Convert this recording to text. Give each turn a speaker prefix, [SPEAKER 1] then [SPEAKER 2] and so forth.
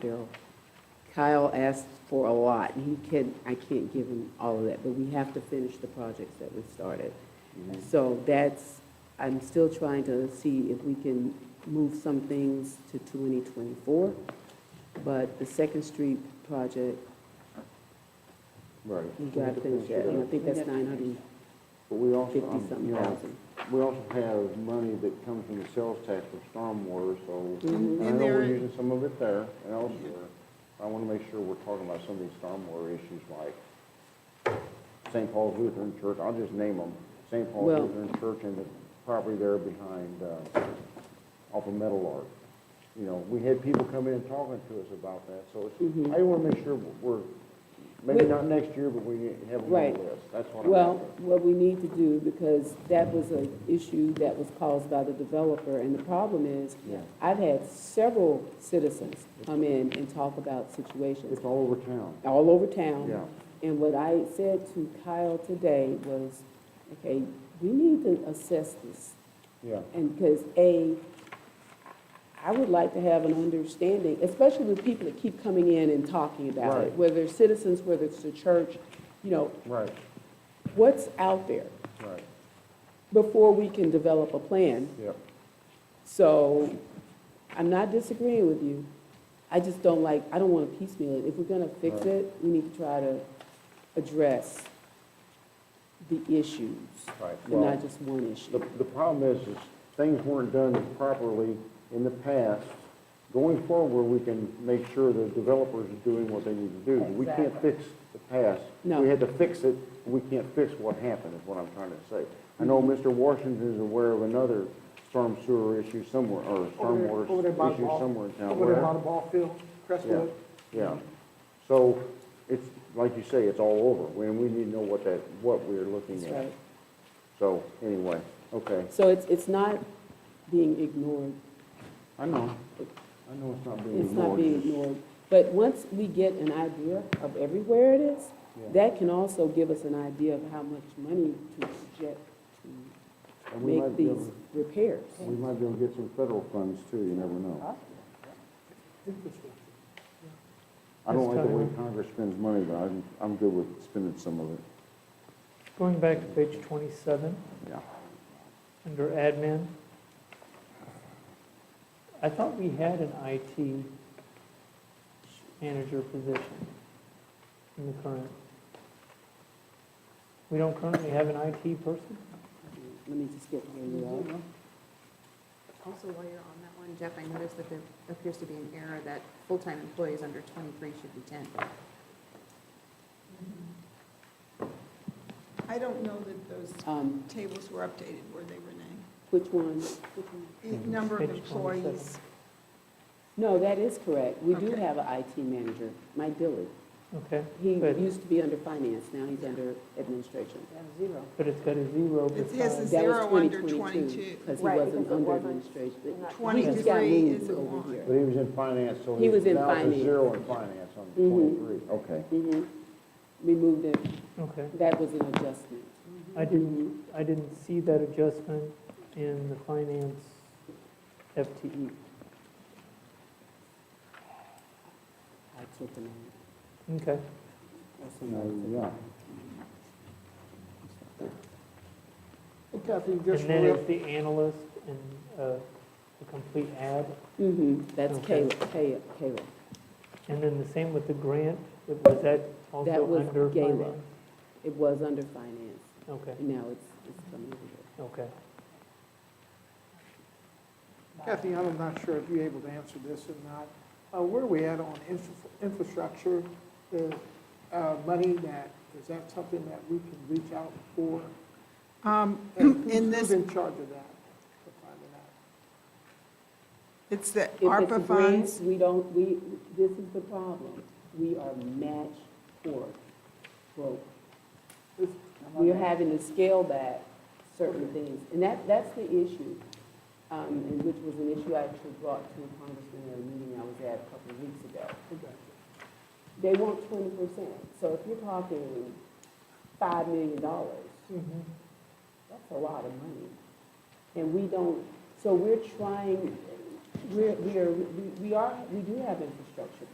[SPEAKER 1] Bill. Kyle asked for a lot, and he can, I can't give him all of that, but we have to finish the projects that we started. So that's, I'm still trying to see if we can move some things to 2024, but the Second Street project,
[SPEAKER 2] Right.
[SPEAKER 1] we gotta finish that, and I think that's 950
[SPEAKER 2] But we also, um, you
[SPEAKER 1] something
[SPEAKER 2] know,
[SPEAKER 1] thousand.
[SPEAKER 2] we also have money that comes from the sales tax of stormwater, so, and I know
[SPEAKER 3] And
[SPEAKER 2] we're
[SPEAKER 3] there-
[SPEAKER 2] using some of it there and elsewhere. I want to make sure we're talking about some of these stormwater issues like St. Paul's Lutheran Church, I'll just name them, St. Paul's
[SPEAKER 1] Well-
[SPEAKER 2] Lutheran Church and the property there behind, uh, off of Metal Art. You know, we had people come in and talking to us about that, so
[SPEAKER 1] Mm-hmm.
[SPEAKER 2] it's, I want to make sure we're, maybe
[SPEAKER 1] We-
[SPEAKER 2] not next year, but we have them on
[SPEAKER 1] Right.
[SPEAKER 2] the list, that's what I'm.
[SPEAKER 1] Well,
[SPEAKER 2] after.
[SPEAKER 1] what we need to do, because that was an issue that was caused by the developer, and the problem is,
[SPEAKER 2] Yeah.
[SPEAKER 1] I've had several citizens come in and talk about situations
[SPEAKER 2] It's all over town.
[SPEAKER 1] all over town.
[SPEAKER 2] Yeah.
[SPEAKER 1] And what I said to Kyle today was, okay, we need to assess this.
[SPEAKER 2] Yeah.
[SPEAKER 1] And because A, I would like to have an understanding, especially with people that keep coming in and talking about it,
[SPEAKER 2] Right.
[SPEAKER 1] whether it's citizens, whether it's the church, you know,
[SPEAKER 2] Right,
[SPEAKER 1] what's out there
[SPEAKER 2] right,
[SPEAKER 1] before we can develop a plan.
[SPEAKER 2] yep.
[SPEAKER 1] So I'm not disagreeing with you. I just don't like, I don't want to piecemeal it. If we're going to fix
[SPEAKER 2] Right.
[SPEAKER 1] it, we need to try to address the issues
[SPEAKER 2] Right.
[SPEAKER 1] and
[SPEAKER 2] Well,
[SPEAKER 1] not just one
[SPEAKER 2] The,
[SPEAKER 1] issue.
[SPEAKER 2] the problem is, is things weren't done properly in the past. Going forward, we can make sure the developers are doing what they need to do. We can't fix the past.
[SPEAKER 1] No.
[SPEAKER 2] We had to fix it, we can't fix what happened, is what I'm trying to say. I know Mr. Washington is aware of another storm sewer issue somewhere, or
[SPEAKER 4] Over there-
[SPEAKER 2] stormwater
[SPEAKER 4] over there by the
[SPEAKER 2] issue
[SPEAKER 4] ball-
[SPEAKER 2] somewhere in town.
[SPEAKER 4] Over there
[SPEAKER 2] Where?
[SPEAKER 4] by the ball field,
[SPEAKER 2] Yeah,
[SPEAKER 4] Crestwood.
[SPEAKER 2] yeah. So it's, like you say, it's all over, and we need to know what that, what we're looking
[SPEAKER 1] That's
[SPEAKER 2] at.
[SPEAKER 1] right.
[SPEAKER 2] So, anyway, okay.
[SPEAKER 1] So it's, it's not being ignored.
[SPEAKER 2] I know, I know it's not being
[SPEAKER 1] It's not
[SPEAKER 2] ignored.
[SPEAKER 1] being ignored. But once we get an idea of everywhere it is,
[SPEAKER 2] Yeah.
[SPEAKER 1] that can also give us an idea of how much money to project to
[SPEAKER 2] And we
[SPEAKER 1] make
[SPEAKER 2] might be able-
[SPEAKER 1] these repairs.
[SPEAKER 2] We might be able to get some federal funds too, you never know. I don't like the way Congress spends money, but I'm, I'm good with spending some of it,
[SPEAKER 5] Going back to page 27,
[SPEAKER 2] yeah.
[SPEAKER 5] under admin, I thought we had an IT manager position in the current. We don't currently have an IT person?
[SPEAKER 1] Let me just get where you are.
[SPEAKER 6] Also, while you're on that one, Jeff, I noticed that there appears to be an error that full-time employees under 23 should be 10.
[SPEAKER 3] I don't know that those
[SPEAKER 1] Um,
[SPEAKER 3] tables were updated, were they, Renee?
[SPEAKER 1] Which one?
[SPEAKER 3] The number of
[SPEAKER 5] Page 27.
[SPEAKER 3] employees,
[SPEAKER 1] No, that is correct. We do
[SPEAKER 3] Okay.
[SPEAKER 1] have an IT manager, Mike Dillard.
[SPEAKER 5] Okay,
[SPEAKER 1] He
[SPEAKER 5] Good.
[SPEAKER 1] used to be under finance, now he's under administration.
[SPEAKER 5] but it's got a zero
[SPEAKER 3] It has
[SPEAKER 5] beside.
[SPEAKER 3] a-
[SPEAKER 1] That was
[SPEAKER 3] Zero under
[SPEAKER 1] 2022,
[SPEAKER 3] 22.
[SPEAKER 1] Because he
[SPEAKER 4] Right,
[SPEAKER 1] wasn't
[SPEAKER 4] because it
[SPEAKER 1] under
[SPEAKER 4] wasn't-
[SPEAKER 1] administration. He just got
[SPEAKER 3] 23
[SPEAKER 1] moved
[SPEAKER 3] is a
[SPEAKER 1] over
[SPEAKER 3] one.
[SPEAKER 2] But he was in finance, so
[SPEAKER 1] He was
[SPEAKER 2] he's
[SPEAKER 1] in
[SPEAKER 2] now it's
[SPEAKER 1] finance.
[SPEAKER 2] a zero in finance on the
[SPEAKER 1] Mhm.
[SPEAKER 2] twenty-three. Okay.
[SPEAKER 1] Mhm. We moved it,
[SPEAKER 5] Okay,
[SPEAKER 1] that was an adjustment.
[SPEAKER 5] I didn't, I didn't see that adjustment in the finance E. FTE.
[SPEAKER 1] I took them out.
[SPEAKER 5] Okay,
[SPEAKER 1] That's
[SPEAKER 2] Uh,
[SPEAKER 1] another thing.
[SPEAKER 2] Yeah,
[SPEAKER 4] Kathy,
[SPEAKER 5] and
[SPEAKER 4] just
[SPEAKER 5] then it's the
[SPEAKER 4] real,
[SPEAKER 5] analyst and uh, the complete ad.
[SPEAKER 1] Mhm, that's
[SPEAKER 5] Okay.
[SPEAKER 1] Caleb, Caleb, Caleb.
[SPEAKER 5] And then the same with the grant, It- was that
[SPEAKER 1] That
[SPEAKER 5] also
[SPEAKER 1] was
[SPEAKER 5] under
[SPEAKER 1] Gala.
[SPEAKER 5] finance?
[SPEAKER 1] It was under finance,
[SPEAKER 5] Okay,
[SPEAKER 1] and now it's, it's coming over here.
[SPEAKER 5] okay.
[SPEAKER 4] Kathy, I'm not sure if you're able to answer this or not. Uh, where are we at on infra- infrastructure, the, uh, money that, is that something that we can reach out for?
[SPEAKER 7] Um,
[SPEAKER 4] And
[SPEAKER 7] In
[SPEAKER 4] who's- Who's
[SPEAKER 7] this-
[SPEAKER 4] in charge of that, for finding out?
[SPEAKER 7] It's the
[SPEAKER 1] If it's
[SPEAKER 7] ARPA
[SPEAKER 1] grants,
[SPEAKER 7] funds.
[SPEAKER 1] we don't, we, this is the problem. We are match poor. broke.
[SPEAKER 4] This-
[SPEAKER 1] We're having to scale back certain things, and that, that's the issue, um, and which was an issue I actually brought to a congressman at a meeting I was at a couple of weeks ago.
[SPEAKER 4] Okay.
[SPEAKER 1] They want twenty percent, so if you're talking five million dollars,
[SPEAKER 5] Mhm.
[SPEAKER 1] that's a lot of money. And we don't, so we're trying, we're, we are, we- we are, we do have infrastructure